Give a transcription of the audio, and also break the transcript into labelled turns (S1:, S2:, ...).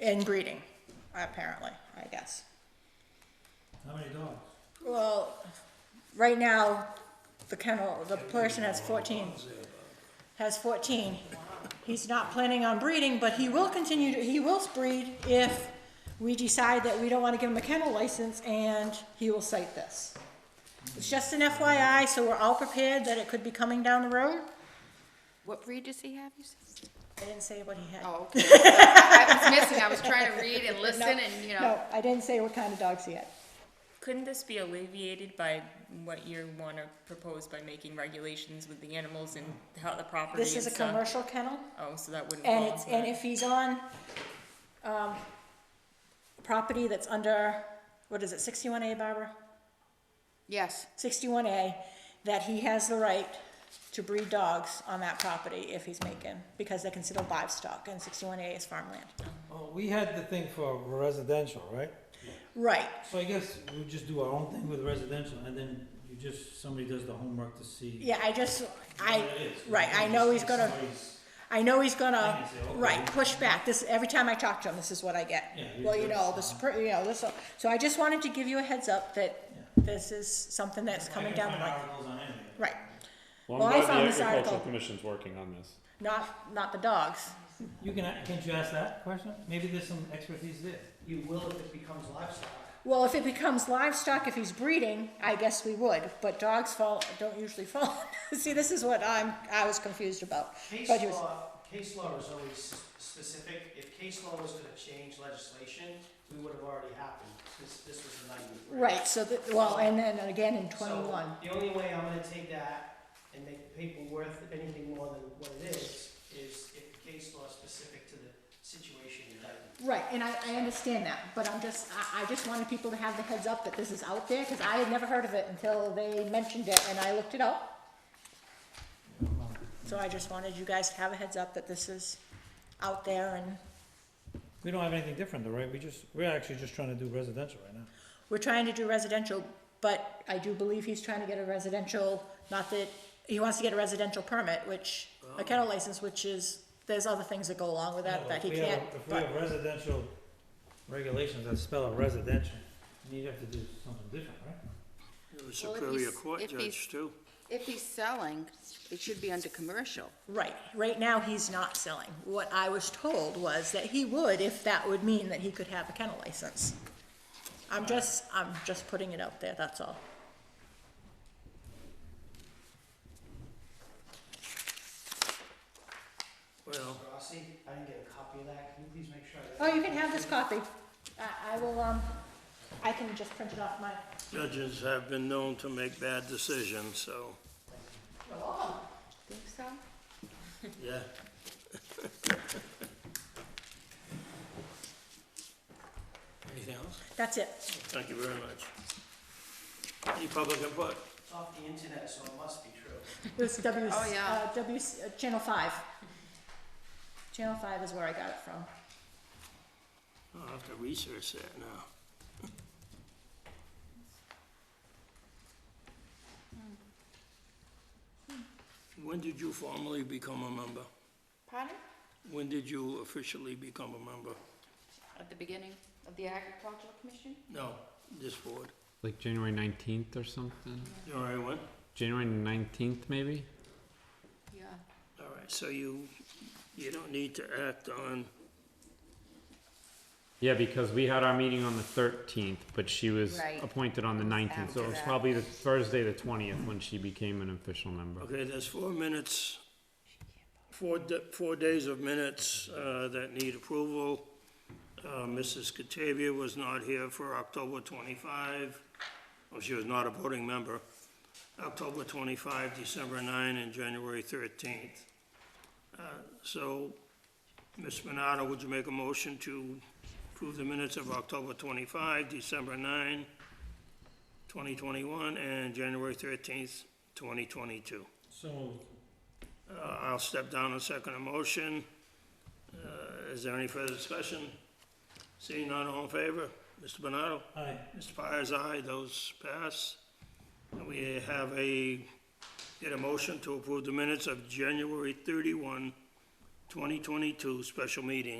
S1: and breeding, apparently, I guess.
S2: How many dogs?
S1: Well, right now, the kennel, the person has fourteen. Has fourteen. He's not planning on breeding, but he will continue to, he will breed if we decide that we don't wanna give him a kennel license and he will cite this. It's just an FYI, so we're all prepared that it could be coming down the road.
S3: What breed does he have, you said?
S1: I didn't say what he had.
S3: Oh, okay. I was missing, I was trying to read and listen
S1: No,
S3: and, you know.
S1: No, I didn't say what kind of dogs he had.
S4: Couldn't this be alleviated by what you want to propose by making regulations with the animals and how the property
S1: This is a
S4: and stuff?
S1: commercial kennel.
S4: Oh, so that wouldn't.
S1: And
S4: fall
S1: it's,
S4: into
S1: and
S4: that.
S1: if he's on, um, property that's under, what is it, sixty-one A, Barbara?
S3: Yes,
S1: Sixty-one A, that he has the right to breed dogs on that property if he's making, because they're considered livestock, and sixty-one A is farmland.
S2: Well, Oh, we had the thing for residential, right?
S1: Right,
S2: So I guess we just do our own thing with residential and then you just, somebody does the homework to see.
S1: yeah, I just, I,
S2: what it is.
S1: right, I know he's gonna,
S2: Somebody's-
S1: I know he's gonna,
S2: Thing is, okay.
S1: right, push back, this, every time I talk to him, this is what I get.
S2: Yeah,
S1: Well, you
S2: usually
S1: know,
S2: it's-
S1: this, per- you know, this, so I just wanted to give you a heads up that this is something that's coming
S2: I can
S1: down the
S2: find
S1: line.
S2: articles on anything.
S1: Right.
S5: Well,
S1: Well, I
S5: I'm
S1: found
S5: glad
S1: this
S5: the agricultural
S1: article.
S5: commission's working on this.
S1: Not, not the dogs.
S2: You can, a- can't you ask that question? Maybe there's some expertise there.
S6: You will if it becomes livestock.
S1: Well, if it becomes livestock, if he's breeding, I guess we would, but dogs fall, don't usually fall. See, this is what I'm, I was confused about.
S6: Case
S1: But he was-
S6: law, case law is always s- specific. If case law was gonna change legislation, we would have already happened. This, this was the ninety.
S1: Right, so that, well, and then again in twenty-one.
S6: So, the only way I'm gonna take that and make the paper worth anything more than what it is, is if case law is specific to the situation in Dayton.
S1: Right, and I, I understand that, but I'm just, I, I just wanted people to have the heads up that this is out there, cause I had never heard of it until they mentioned it and I looked it up. So I just wanted you guys to have a heads up that this is out there and
S2: We don't have anything different though, right? We just, we're actually just trying to do residential right now.
S1: We're trying to do residential, but I do believe he's trying to get a residential, not that, he wants to get a residential permit, which, a kennel license, which is, there's other things that go along with that, that he
S2: Oh. If we have-
S1: can't,
S2: If we
S1: but,
S2: have residential regulations that spell out residential, then you'd have to do something different, right?
S7: It was
S3: Well, if
S7: Superior
S3: he's-
S7: Court
S3: if he's-
S7: judge too.
S3: if he's selling, it should be under commercial.
S1: right, right now, he's not selling. What I was told was that he would, if that would mean that he could have a kennel license. I'm just, I'm just putting it out there, that's all.
S7: Well,
S6: Rossi, I didn't get a copy of that. Can you please make sure? I-
S1: Oh, you can have this copy. I, I will, um, I can just print it off my,
S7: judges have been known to make bad decisions, so,
S3: Think so?
S7: yeah. Anything else?
S1: that's it.
S7: Thank you very much. Any public input?
S6: It's off the internet, so it must be true.
S1: It was W,
S3: Oh, yeah.
S1: uh, W, uh, Channel Five. Channel Five is where I got it from.
S7: I'll have to research that now. When did you formally become a member?
S3: Pardon?
S7: When did you officially become a member?
S3: At the beginning of the agricultural commission?
S7: No, this board.
S8: like January 19th or something.
S7: All right, when?
S8: January 19th, maybe?
S3: Yeah.
S7: All right, so you, you don't need to act on,
S8: Yeah, because we had our meeting on the 13th, but she was
S3: Right.
S8: appointed on the 19th. so
S3: After
S8: it was
S3: that.
S8: probably the Thursday, the 20th, when she became an official member.
S7: okay, there's four minutes, four, da- four days of minutes uh, that need approval. Uh, Mrs. Catavia was not here for October 25. Well, she was not a voting member. October 25, December 9, and January 13th. Uh, So, Ms. Minata, would you make a motion to approve the minutes of October 25, December 9, 2021, and January 13th, 2022?
S2: So
S7: Uh, I'll step down and second a motion. Uh, Is there any further discussion? Seeing none, all in favor? Mr. Bernardo?
S2: Aye.
S7: Mr. Pires, aye, those pass. And we have a, get a motion to approve the minutes of January 31, 2022, special meeting.